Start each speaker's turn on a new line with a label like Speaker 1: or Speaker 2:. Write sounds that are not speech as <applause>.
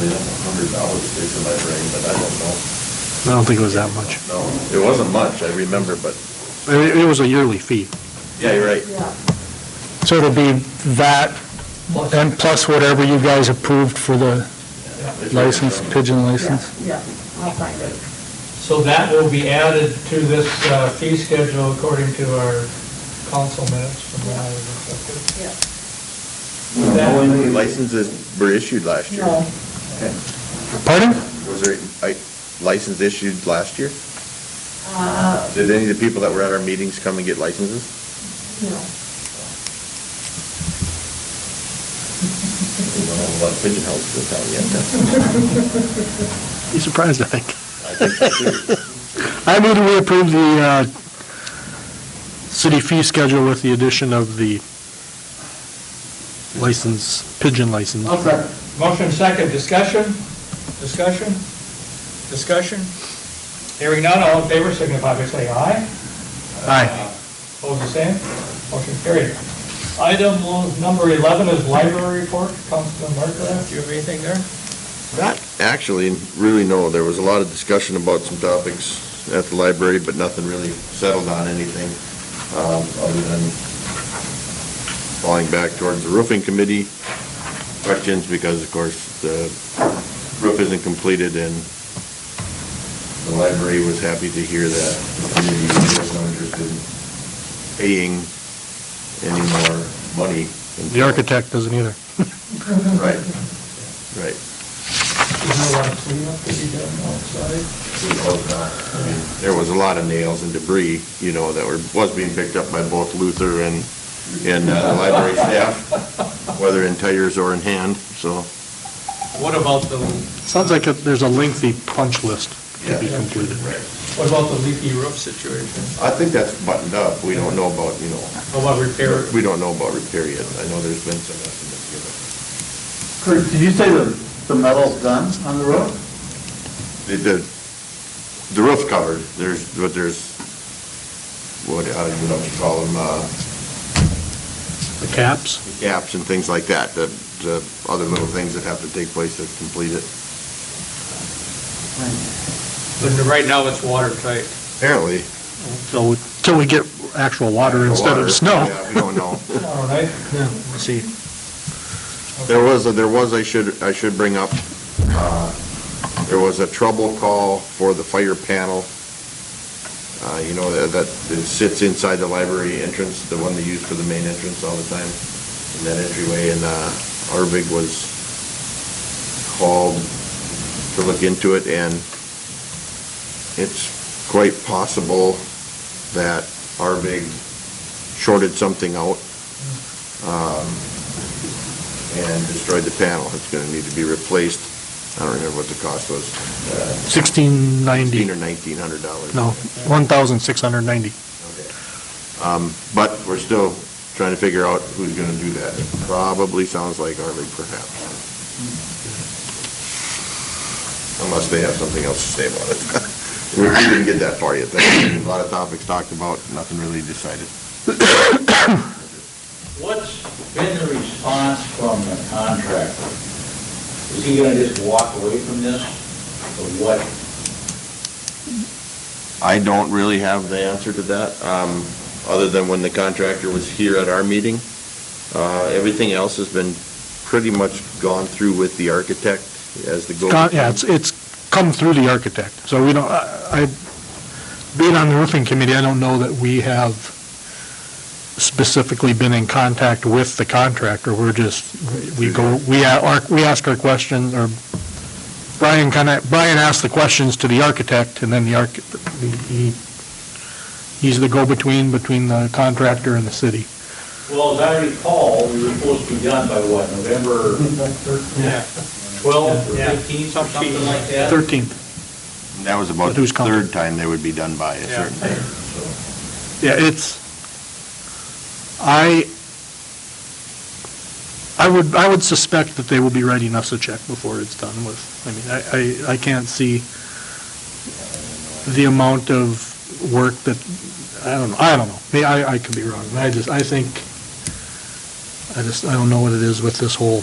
Speaker 1: made up a hundred dollars based on that rain, but I don't know.
Speaker 2: I don't think it was that much.
Speaker 1: No, it wasn't much, I remember, but,
Speaker 2: I mean, It was a yearly fee.
Speaker 1: yeah, you're right.
Speaker 3: Yeah,
Speaker 4: So it'll be that, and plus whatever you guys approved for the license, pigeon
Speaker 3: yeah,
Speaker 4: license?
Speaker 3: yeah, I'll find it.
Speaker 5: So that will be added to this uh, fee schedule according to our council minutes from when I was accepted.
Speaker 3: Yeah.
Speaker 1: How many licenses were issued last year?
Speaker 3: No,
Speaker 4: Pardon?
Speaker 1: Was there, I, license issued last year?
Speaker 3: uh,
Speaker 1: Did any of the people that were at our meetings come and get licenses?
Speaker 3: no.
Speaker 1: We don't have a lot of pigeonholes in town yet, that's.
Speaker 2: Be surprised, I think.
Speaker 1: I think that's it.
Speaker 2: <laughs> I move that we approve the uh, city fee schedule with the addition of the license, pigeon license.
Speaker 5: Okay. Motion second, discussion, discussion, discussion. Hearing none, all in favor, signify by saying aye.
Speaker 2: Aye.
Speaker 5: Opposed, the same. Motion carried. Item number 11 is library report. Councilman Markgraf, do you have anything there?
Speaker 1: Not actually, really, no. There was a lot of discussion about some topics at the library, but nothing really settled on anything, um, other than falling back towards the roofing committee questions, because of course, the roof isn't completed, and the library was happy to hear that the community was no interest in paying any more money.
Speaker 2: The architect doesn't either.
Speaker 1: Right, right.
Speaker 5: Is there a lot of cleanup to be done outside?
Speaker 1: I mean, There was a lot of nails and debris, you know, that were, was being picked up by both Luther and, and uh, the library staff, whether in tires or in hand, so.
Speaker 5: What about the,
Speaker 2: Sounds like there's a lengthy punch list to be completed.
Speaker 5: what about the leaky roof situation?
Speaker 1: I think that's buttoned up. We don't know about, you know,
Speaker 5: How about repair?
Speaker 1: we don't know about repair yet. I know there's been some estimates given.
Speaker 6: Kurt, did you say the, the metal's done on the road?
Speaker 1: The, the, the roof's covered, there's, but there's, what, I don't know what you call them, uh,
Speaker 2: The caps?
Speaker 1: gaps and things like that, the, the other little things that have to take place to complete it.
Speaker 5: But Right now, it's watertight.
Speaker 1: Apparently.
Speaker 2: So until we get actual water instead
Speaker 1: Water,
Speaker 2: of snow.
Speaker 1: yeah, We don't know.
Speaker 5: All right.
Speaker 2: <laughs> See,
Speaker 1: There was, a- there was, I should, I should bring up, uh, there was a trouble call for the fire panel. Uh, You know, that that it sits inside the library entrance, the one they use for the main entrance all the time, in that entryway. And uh, Arvig was called to look into it, and it's quite possible that Arvig shorted something out. Um, and destroyed the panel. It's going to need to be replaced. I don't remember what the cost was,
Speaker 2: 1690,
Speaker 1: 15 or 1900 dollars.
Speaker 2: no, 1,690.
Speaker 1: Um, But we're still trying to figure out who's going to do that. It Probably sounds like Arvig perhaps. Unless they have something else to say about it. <laughs> We didn't get that far yet. There's A lot of topics talked about, nothing really decided.
Speaker 6: What's been the response from the contractor? Is he gonna just walk away from this, or what?
Speaker 1: I don't really have the answer to that, um, other than when the contractor was here at our meeting. Uh, everything else has been pretty much gone through with the architect as the go.
Speaker 2: Con- Yeah, it's, it's come through the architect, so we don't, I, I- being on the roofing committee, I don't know that we have specifically been in contact with the contractor, we're just, we go, we, a- our- we ask our questions, or Brian kind of, Brian asked the questions to the architect, and then the arch, he, he's the go-between between the contractor and the city.
Speaker 6: Well, as I recall, we were supposed to be done by what, November
Speaker 5: Yeah.
Speaker 6: 12th or
Speaker 5: Yeah.
Speaker 6: 15th, or something like that?
Speaker 2: Thirteenth.
Speaker 1: That was about
Speaker 2: But
Speaker 1: the
Speaker 2: who's coming?
Speaker 1: third time they would be done by a certain date. so.
Speaker 2: Yeah, it's, I, I would, I would suspect that they will be writing us a check before it's done with. I mean, I, I, I can't see the amount of work that, I don't know, I don't know. May- I, I could be wrong. I just, I think, I just, I don't know what it is with this whole